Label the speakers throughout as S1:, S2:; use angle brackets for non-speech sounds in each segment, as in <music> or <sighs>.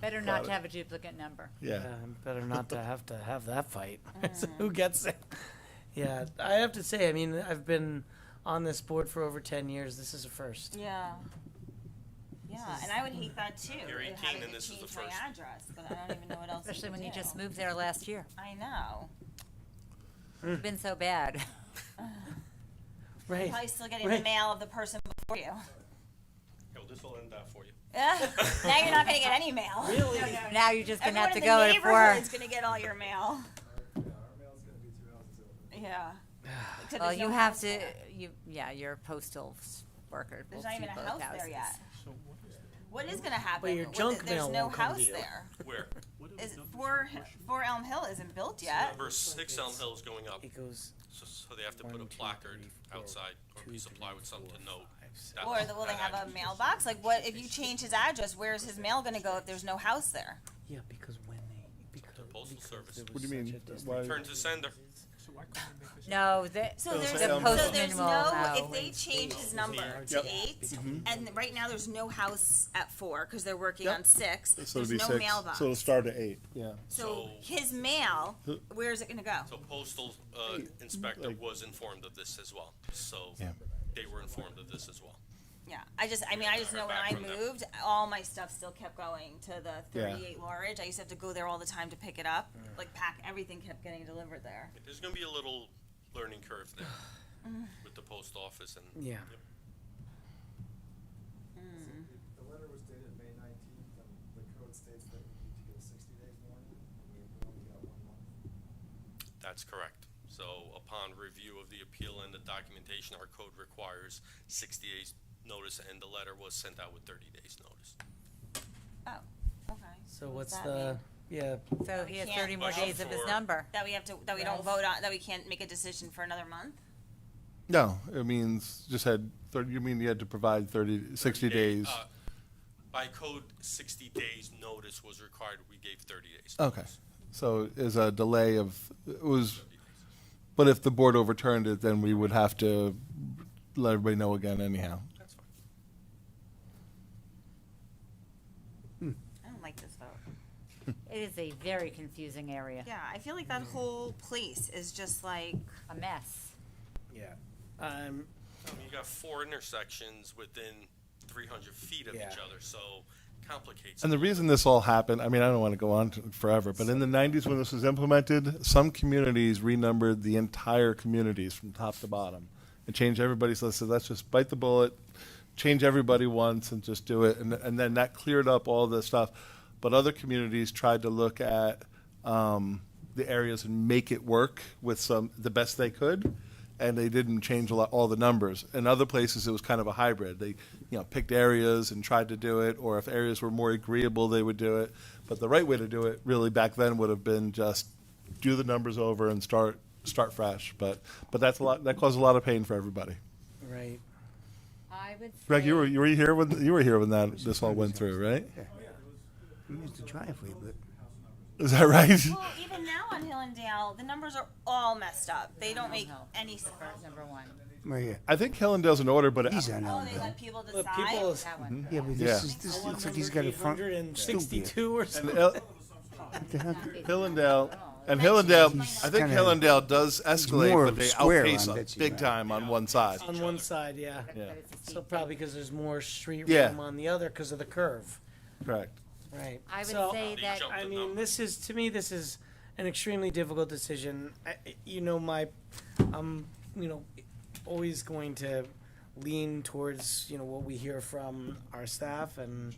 S1: Better not
S2: Got
S1: to
S2: it.
S1: have a duplicate number.
S2: Yeah.
S3: Um, Better not to have to have that fight. <laughs> So Who gets it? Yeah, I have to say, I mean, I've been on this board for over ten years. This is a first.
S4: Yeah. Yeah, and I would hate that too.
S5: You're
S4: and
S5: 18
S4: having
S5: and
S4: to
S5: this is the
S4: change my
S5: first.
S4: address, but I don't even know what else. you
S1: Especially
S4: could
S1: when you
S4: do.
S1: just moved there last year.
S4: I know.
S2: Hmm.
S1: It's been so
S4: <laughs>
S1: bad. <laughs>
S4: Probably
S3: Right.
S4: still getting the
S3: Right.
S4: mail of the person before you. <laughs>
S5: Here, this will end that for you.
S4: now you're not gonna get any
S3: <laughs>
S4: mail. Really? <laughs>
S1: Now you're just gonna
S4: Everyone
S1: have to
S4: in the
S1: go at
S4: neighborhood
S1: four.
S4: is gonna get all your mail.
S5: <sighs>
S4: Yeah. Except
S1: Well,
S4: there's
S1: you
S4: no
S1: have
S4: house
S1: to,
S4: there.
S1: you, yeah, you're a postal s- worker. We'll
S4: There's not
S1: see
S4: even a
S1: both
S4: house there
S1: houses.
S4: yet. What is gonna happen?
S3: your
S4: with
S3: junk
S4: it? There's
S3: mail
S4: no
S3: won't come to
S4: house
S3: you.
S4: there.
S3: <laughs>
S5: Where?
S4: Is four four Elm Hill isn't built yet.
S5: Number six Elm Hill is going up,
S3: It goes.
S5: so, so they have to put
S3: One,
S5: a
S3: two,
S5: placard
S3: three, four,
S5: outside or a
S3: two,
S5: piece of
S3: three,
S5: plywood, something to
S3: four,
S5: note.
S3: five, six.
S5: that-
S4: Or the, will they
S5: that
S4: have a
S5: address.
S4: mailbox? Like, what if you change his address? Where's his mail going to go if there's no house there?
S3: Yeah, because when they because
S5: Postal
S3: because
S5: Service.
S3: there
S2: What
S3: was
S2: do you
S3: such
S2: mean?
S3: a distance.
S2: Why-
S5: Turn to sender.
S1: No, the,
S4: So
S2: there's-
S4: there's
S2: say
S1: the
S2: Elm
S4: so
S2: Hill.
S4: there's
S1: postman will
S4: no
S1: know.
S4: if they change his number to
S2: Yep.
S4: eight,
S3: Mm-hmm.
S4: and right now there's no house at four because they're working
S2: Yep.
S4: on six.
S2: So it'll
S4: there's
S2: be
S4: no
S2: six.
S4: mailbox.
S2: So
S4: So,
S2: it'll start at eight. Yeah.
S5: So-
S4: his mail, where is it going to go?
S5: So postal, uh, inspector
S2: like-
S5: was informed of this as well, so
S2: Yeah.
S5: they were informed of this as well.
S4: Yeah, I just I mean I just know when I
S5: Back from them.
S4: moved, all my stuff still kept going to the
S2: Yeah.
S4: 38 Laurage. I used to have to go there all the time to pick it up. Like pack everything kept getting delivered there.
S5: There's gonna be a little learning curve there
S3: <sighs>
S5: with the post office and.
S3: Yeah.
S5: Yep.
S6: The letter was dated May nineteenth, and the code states that we need to get a sixty days warning, and we only got one month.
S5: That's correct. So upon review of the appeal and the documentation, our code requires sixty days notice, and the letter was sent out with thirty days notice.
S4: Oh, okay.
S3: So
S4: What does
S3: what's
S4: that
S3: the
S4: mean?
S3: yeah?
S1: So he has
S4: can't
S1: thirty more
S5: Well,
S1: days of his
S5: for-
S1: number.
S4: That we have to, that we don't
S1: Yes.
S4: vote on, that we can't make a decision for another month?
S2: No, it means just had thirty. You mean you had to provide 30, 60 days?
S5: Uh, By code, sixty days notice was required. We gave thirty days.
S2: okay. So is a delay of it was, but if the board overturned it, then we would have to let everybody know again anyhow.
S5: That's fine.
S4: I don't like this vote.
S1: It is a very confusing area,
S4: Yeah, I feel like that whole place is just like,
S1: a mess.
S3: Yeah. Um.
S5: I mean, you got four intersections within three hundred feet of each
S3: Yeah.
S5: other, so complicates.
S2: And the reason this all happened, I mean, I don't want to go on to- forever, but in the 90s when this was implemented, some communities renumbered the entire communities from top to bottom and changed everybody's list. So let's just bite the bullet, change everybody once and just do it. And, and then that cleared up all the stuff. But other communities tried to look at um, the areas and make it work with some, the best they could and they didn't change a lot, all the numbers. In other places, it was kind of a hybrid. They, you know, picked areas and tried to do it, or if areas were more agreeable, they would do it. But the right way to do it, really, back then would have been just do the numbers over and start start fresh. But but that's a lot. That caused a lot of pain for everybody.
S3: Right.
S1: I would
S2: Greg, you were you were here when you were here when that this all went through, right?
S7: We used the driveway, but
S2: Is that right?
S4: well, even now on Hill and Dale, the numbers are all messed up. They don't make
S1: no.
S4: any sense.
S1: Number one,
S7: Maria,
S2: I think Helen does an order, but
S7: these are
S4: Oh,
S7: not.
S4: they let people
S3: Look, people.
S4: decide?
S2: Mm-hmm.
S3: is-
S1: that one.
S7: Yeah, but
S2: Yeah.
S7: this is, this looks like he's got a front. stupid.
S3: 862 or something.
S2: El-
S7: What the heck?
S2: Hillendale and Hillendale. I think
S7: Kinda-
S2: Hillendale does escalate,
S7: more
S2: but they
S7: square
S2: outpace
S7: on
S2: us
S7: Betsy,
S2: big
S7: right?
S2: time on one side.
S3: on one side, yeah.
S1: But
S2: Yeah.
S1: it's a
S3: So
S1: steep
S3: probably because there's more street
S2: Yeah.
S3: room on the other because of the curve.
S2: Correct.
S3: Right.
S1: I would
S3: So,
S1: say
S5: They
S1: that,
S5: jump
S3: I
S5: the
S3: mean,
S5: number.
S3: this is to me, this is an extremely difficult decision. I, you know, my, I'm, you know, always going to lean towards you know what we hear from our staff, and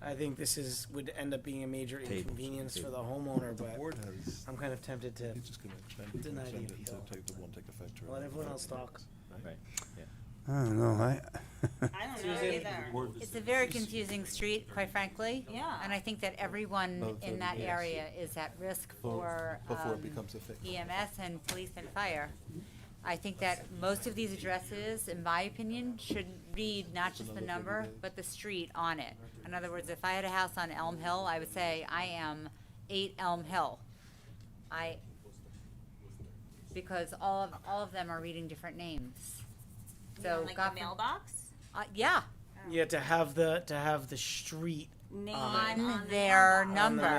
S3: I think this is would end up being a major inconvenience for the homeowner. But
S2: has.
S3: I'm kind of tempted to
S2: just gonna extend,
S3: Deny the extend it appeal. until
S2: take the one, take effect.
S3: let everyone else talk.
S7: I don't know. I,
S4: I don't know
S3: Susan.
S4: either.
S1: it's a very confusing street, quite frankly.
S4: Yeah.
S1: And I think that everyone
S2: Both
S1: in
S2: of
S1: that
S2: them.
S1: area is at risk for,
S2: Before it
S1: um,
S2: becomes a thing.
S1: EMS and police and fire. I think that most of these addresses, in my opinion, should read not just the number, but the street on it. In other words, if I had a house on Elm Hill, I would say, I am eight Elm Hill. I, because all of, all of them are reading different names. So,
S4: Like
S1: God
S4: the
S1: for-
S4: mailbox?
S1: uh, yeah,
S3: Yeah, to have the to have the street
S4: name
S1: on
S4: the
S1: their
S4: mailbox.
S1: number.